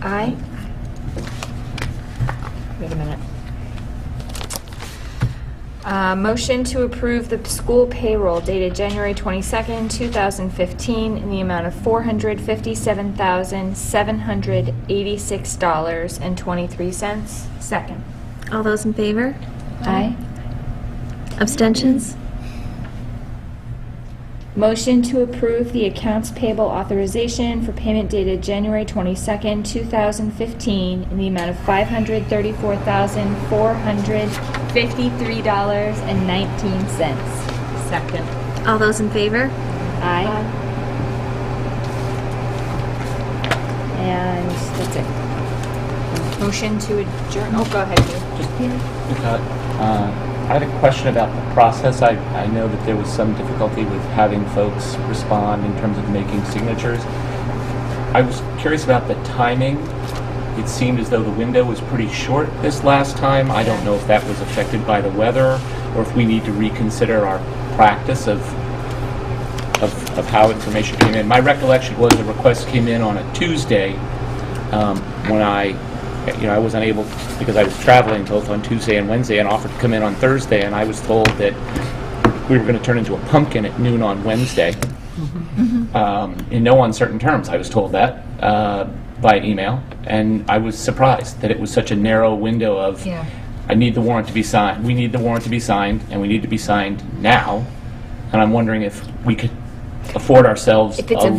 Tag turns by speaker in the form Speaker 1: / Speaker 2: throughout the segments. Speaker 1: I, wait a minute. Uh, Motion to approve the school payroll dated January 22nd, 2015, in the amount of $457,786.23. Second.
Speaker 2: All those in favor?
Speaker 1: Aye.
Speaker 2: Abstentions?
Speaker 1: Motion to approve the accounts payable authorization for payment dated January 22nd, 2015, in the amount of $534,453.19. Second.
Speaker 2: All those in favor?
Speaker 1: Aye. And that's it. Motion to adjourn, oh, go ahead, Dave.
Speaker 3: Uh, I had a question about the process. I, I know that there was some difficulty with having folks respond in terms of making signatures. I was curious about the timing. It seemed as though the window was pretty short this last time. I don't know if that was affected by the weather or if we need to reconsider our practice of, of, of how information came in. My recollection was the request came in on a Tuesday, um, when I, you know, I was unable, because I was traveling both on Tuesday and Wednesday, and offered to come in on Thursday, and I was told that we were going to turn into a pumpkin at noon on Wednesday. Um, In no uncertain terms, I was told that uh, by email, and I was surprised that it was such a narrow window of,
Speaker 1: Yeah.
Speaker 3: I need the warrant to be signed, we need the warrant to be signed, and we need to be signed now, and I'm wondering if we could afford ourselves a
Speaker 1: If it's
Speaker 3: little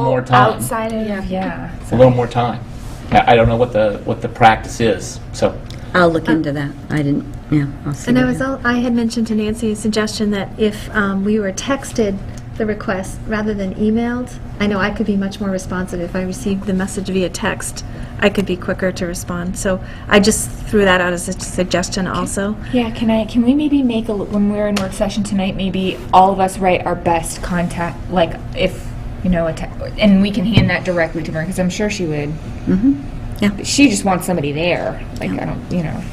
Speaker 3: more
Speaker 1: available
Speaker 3: time
Speaker 1: outside of, yeah.
Speaker 3: a little more time. I I don't know what the, what the practice is, so,
Speaker 4: I'll look into that. I didn't, yeah, I'll see.
Speaker 2: And I
Speaker 4: what
Speaker 2: was, al- I had mentioned to Nancy a suggestion that if um, we were texted the request rather than emailed, I know I could be much more responsive if I received the message via text. I could be quicker to respond. So I just threw that out as a suggestion also.
Speaker 1: Yeah, can I, can we maybe make, a l- when we're in work session tonight, maybe all of us write our best contact, like, if, you know, a te- and we can hand that directly to her, because I'm sure she would. Mm-hmm,
Speaker 4: Yeah.
Speaker 1: She just wants somebody there, like, I don't, you know,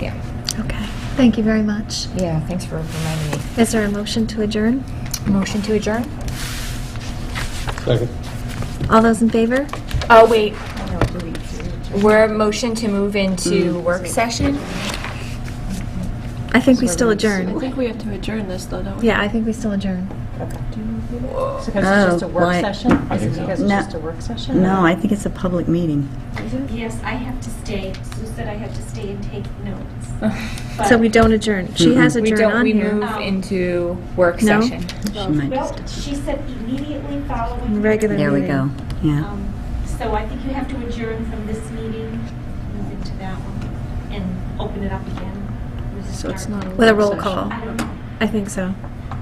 Speaker 1: yeah.
Speaker 2: Okay. Thank you very much.
Speaker 1: Yeah, thanks for reminding me.
Speaker 2: Is there a motion to adjourn?
Speaker 1: Motion to adjourn?
Speaker 5: Second.
Speaker 2: All those in favor?
Speaker 1: Oh, wait. We're motion to move into work session?
Speaker 2: I think we still adjourn.
Speaker 6: I think we have to adjourn this, though, don't we?
Speaker 2: Yeah, I think we still adjourn.
Speaker 7: Because it's just
Speaker 4: Oh,
Speaker 7: a work
Speaker 4: why-
Speaker 7: session?
Speaker 3: I
Speaker 7: Is
Speaker 3: think
Speaker 7: it
Speaker 3: so.
Speaker 7: because it's
Speaker 4: No.
Speaker 7: just a work
Speaker 4: I-
Speaker 7: session?
Speaker 4: No, I think it's a public meeting.
Speaker 8: Yes, I have to stay. Sue said I have to stay and take notes.
Speaker 2: So we don't adjourn. She has
Speaker 1: We
Speaker 2: adjourned
Speaker 1: don't,
Speaker 2: on
Speaker 1: we
Speaker 2: here.
Speaker 1: move into work
Speaker 2: No.
Speaker 1: session.
Speaker 4: She might
Speaker 8: Well,
Speaker 4: just,
Speaker 8: she said immediately following.
Speaker 2: Regular
Speaker 4: there we go.
Speaker 2: meeting.
Speaker 4: Yeah.
Speaker 8: Um, So I think you have to adjourn from this meeting, move into that one, and open it up again. with the
Speaker 6: So it's
Speaker 8: start.
Speaker 6: not a
Speaker 2: With a
Speaker 6: work
Speaker 2: roll
Speaker 6: session.
Speaker 2: call.
Speaker 8: I don't know.
Speaker 2: I think so.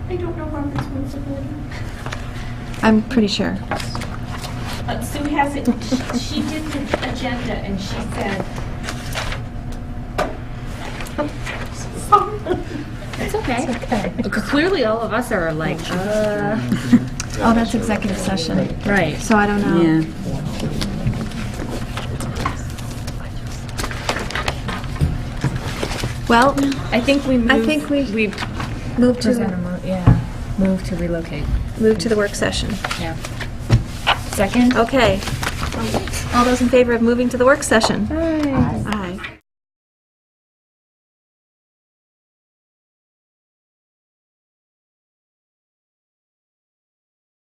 Speaker 8: I don't know Robert's rules of order.
Speaker 2: I'm pretty sure.
Speaker 8: But Sue has it, she did the agenda and she said.
Speaker 6: Oh.
Speaker 1: It's okay. Clearly, all of us are like, uh...
Speaker 2: Oh, that's executive session.
Speaker 1: Right.
Speaker 2: So I don't know.
Speaker 4: Yeah.
Speaker 2: Well,
Speaker 1: I think we move...
Speaker 2: I think we-
Speaker 1: We
Speaker 2: move
Speaker 1: present a
Speaker 2: to,
Speaker 1: mo, yeah, move to relocate.
Speaker 2: move to the work session.
Speaker 1: Yeah. Second?
Speaker 2: Okay. All those in favor of moving to the work session?
Speaker 1: Aye.